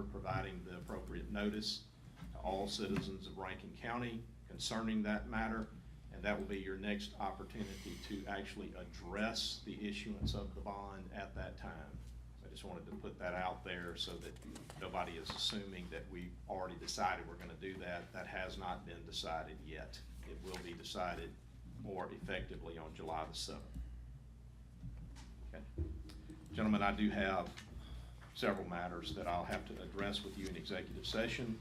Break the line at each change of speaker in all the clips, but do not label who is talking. for providing the appropriate notice to all citizens of Rankin County concerning that matter. And that will be your next opportunity to actually address the issuance of the bond at that time. So I just wanted to put that out there so that nobody is assuming that we already decided we're gonna do that. That has not been decided yet. It will be decided more effectively on July the seventh. Okay. Gentlemen, I do have several matters that I'll have to address with you in executive session.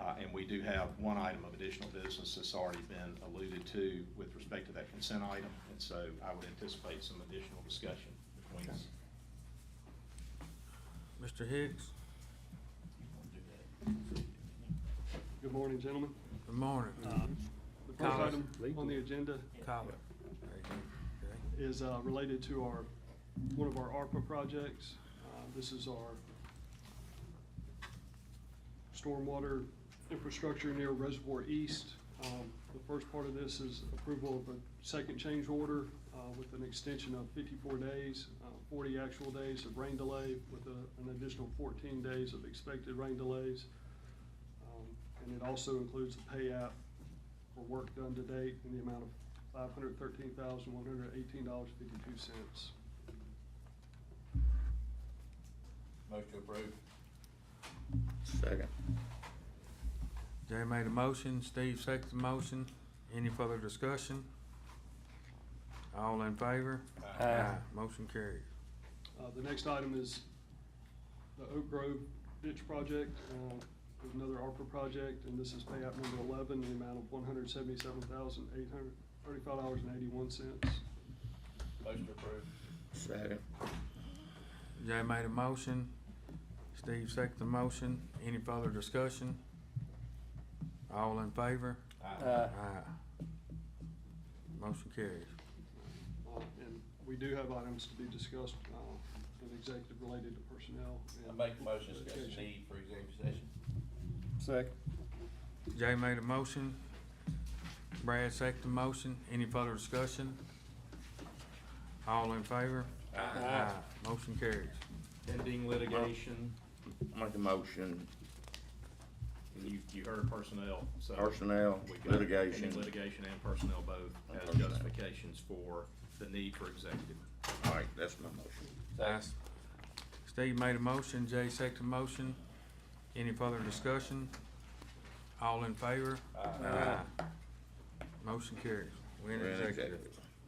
Uh, and we do have one item of additional business that's already been alluded to with respect to that consent item. And so I would anticipate some additional discussion between us.
Mr. Hicks,
Good morning, gentlemen.
good morning.
Uh,
The first
Collins.
item on the agenda
Collar. There you go. Okay.
is uh, related to our, one of our ARPA projects. Uh, This is our stormwater infrastructure near Reservoir East. Um, The first part of this is approval of a second change order uh, with an extension of 54 days, uh, 40 actual days of rain delay with a- an additional 14 days of expected rain delays. Um, And it also includes a pay app for work done to date in the amount of five hundred thirteen thousand, one hundred eighteen dollars, fifty-two cents.
Motion approved.
Second.
Jay made a motion, Steve seconded the motion. Any further discussion? All in favor?
Aye.
Motion carries.
Uh, the next item is the Oak Grove ditch project, uh, there's another ARPA project, and this is payout number eleven, the amount of one hundred seventy-seven thousand, eight hundred thirty-five dollars and eighty-one cents.
Motion approved.
Second.
Jay made a motion, Steve seconded the motion. Any further discussion? All in favor? Uh,
Aye.
Motion carries.
Uh, and we do have items to be discussed, uh, in executive related to personnel.
I
and
make the motion, discuss the
litigation.
need for executive session.
Second.
Jay made a motion, Brad seconded the motion. Any further discussion? All in favor?
Aye.
Motion carries.
Pending litigation,
Make a motion,
you, you heard personnel, so.
personnel,
we got pending
litigation.
Litigation and personnel both
And
as
personnel.
justifications for the need for executive.
All right, that's my motion.
Second.
Steve made a motion, Jay seconded the motion. Any further discussion? All in favor?
Aye.
Motion carries. We in
We're in
executive.
executive.